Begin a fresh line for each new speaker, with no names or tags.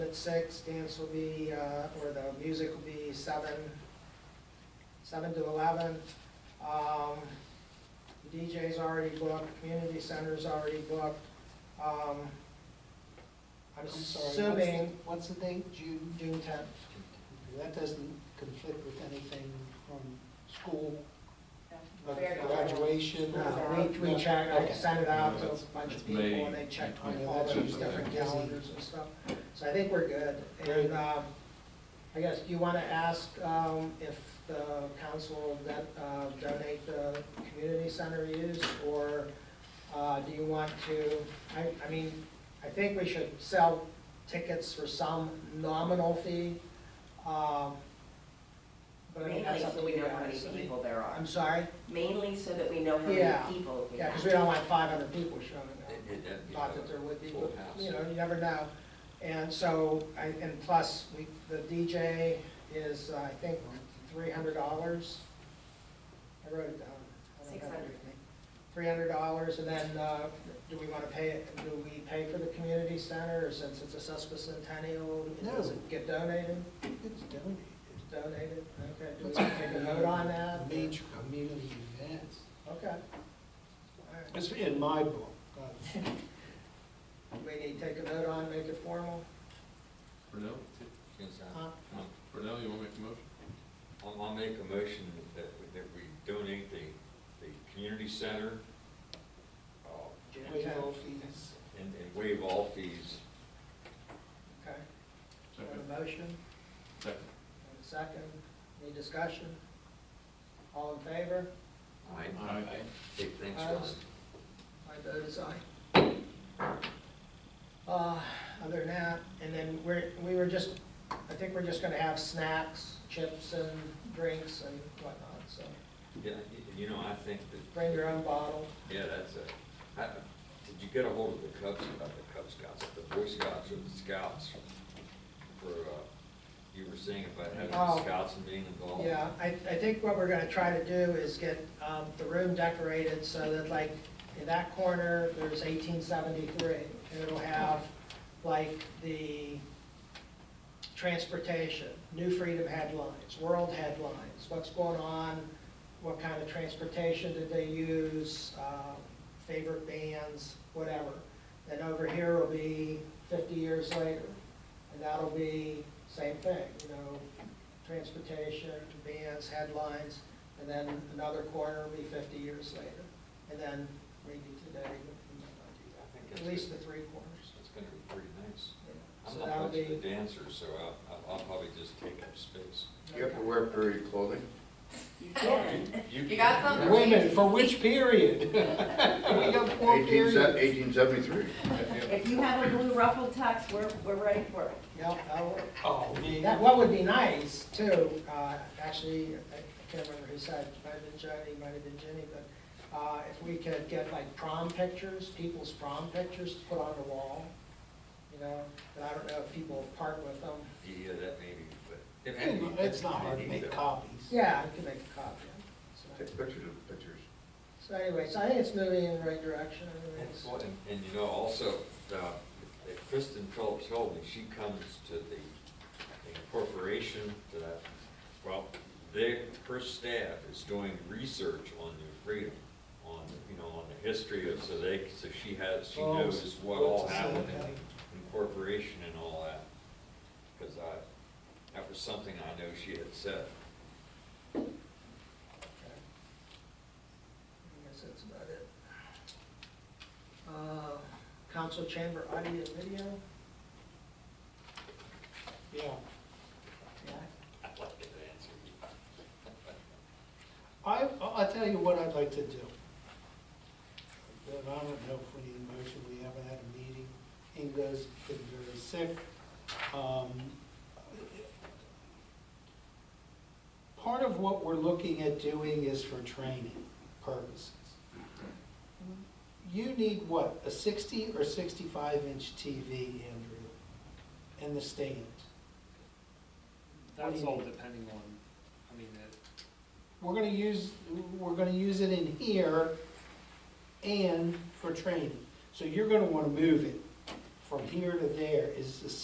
at six, dance will be, uh, or the music will be seven, seven to eleven. Um, DJ's already booked, community center's already booked. Um, I'm
I'm sorry, what's the-
assuming
What's the date, June?
June tenth,
That doesn't conflict with anything from school,
Very good.
graduation. or-
Uh, we, we checked, I
Okay.
sent it out to a
No,
bunch of
that's
people,
May
and they checked
twenty-
all
that's
those
just
different
busy.
calendars and stuff. So I think we're good,
Great.
and, um, I guess, do you wanna ask, um, if the council will that, uh, donate the community center use, or, uh, do you want to, I, I mean, I think we should sell tickets for some nominal fee, um, but I mean,
Mainly
that's up
so
to
we
you
know how many
guys. I mean,
people there are.
I'm sorry?
Mainly so that we know how
Yeah.
many people we
Yeah,
have.
because we don't want five hundred people showing
It-
up.
it- that'd be
Thought
a
that there would be,
full
but,
house.
you know, you never know. And so, I- and plus, we, the DJ is, uh, I think, three hundred dollars. I wrote it down.
$600.
Three hundred dollars, and then, uh, do we want to pay, it? do we pay for the community center, or since it's a sesquicentennial, it
No.
doesn't get donated?
It's donated.
It's donated, okay. Do we take a vote on that?
Major community events.
Okay. All right.
It's in my book. but-
We need to take a vote on, make it formal?
Brunel,
Huh?
Brunel, you wanna make a motion?
I'll, I'll make a motion that, we- that we donate the, the community center, uh,
Waive all fees.
and, and waive all fees.
Okay, we have a motion, we
Second.
have a second, any discussion? All in favor?
Aye.
Aye.
Hey, thanks, Ron.
Opposed? My vote is aye. Uh, other than that, and then we're, we were just, I think we're just gonna have snacks, chips and drinks and whatnot, so
Yeah, y- you know, I think that.
bring your own bottle.
Yeah, that's a, I, did you get a hold of the Cubs, about the Cub Scouts, the Boy Scouts or the Scouts? For, uh, you were saying about having
Oh.
the Scouts and being involved?
Yeah, I, I think what we're gonna try to do is get, um, the room decorated so that like, in that corner, there's eighteen seventy-three. And it'll have like the transportation, New Freedom headlines, world headlines, what's going on, what kind of transportation did they use, uh, favorite bands, whatever. Then over here will be fifty years later, and that'll be same thing, you know, transportation, bands, headlines, and then another corner will be fifty years later. And then maybe today, we might not do that.
I think
at
that's
least the
good.
three corners.
It's gonna be pretty nice.
yeah.
I'm
So
not
that'll
much of a
be.
dancer, so I'll, I'll- I'll probably just take up space.
You have to wear period clothing.
You can.
You-
You got something?
Wait a minute, for which period? We got four
Eighteen se-
periods.
1873.
If you have a blue ruffled tux, we're, we're ready for it.
Yep, that'll work.
Oh,
That, what would be nice too, uh, actually, I I can't remember who said, it might have been Jody, might have been Jenny, but, uh, if we could get like prom pictures, people's prom pictures put on the wall, you know, but I don't know if people part with them.
Yeah, that maybe, but. it may be-
It's not hard to
maybe,
make
though.
copies.
Yeah, I can make a copy. So-
Take pictures of pictures.
So anyway, so I think it's moving in the right direction, I
That's
mean,
what- And, and you know, also, uh, if Kristen Phillips Holding, she comes to the corporation that, well, their, her staff is doing research on New Freedom, on, you know, on the history of, so they, so she has, she
Oh,
knows what all
what's the-
happened in incorporation and all that. Because I, that was something I know she had said.
Okay. I guess that's about it. Uh, Council chamber audio and video?
Yeah.
Yeah.
I'd like to answer you.
I, I'll tell you what I'd like to do. But I don't know if we need a motion, we haven't had a meeting, Inga's been very sick. Um, Part of what we're looking at doing is for training purposes. You need what, a sixty or sixty-five inch TV, Andrew, in the stand?
That's
What do you
all
mean?
depending on, I mean, uh, it,
We're gonna use, we're gonna use it in here and for training. So you're gonna wanna move it from here to there is the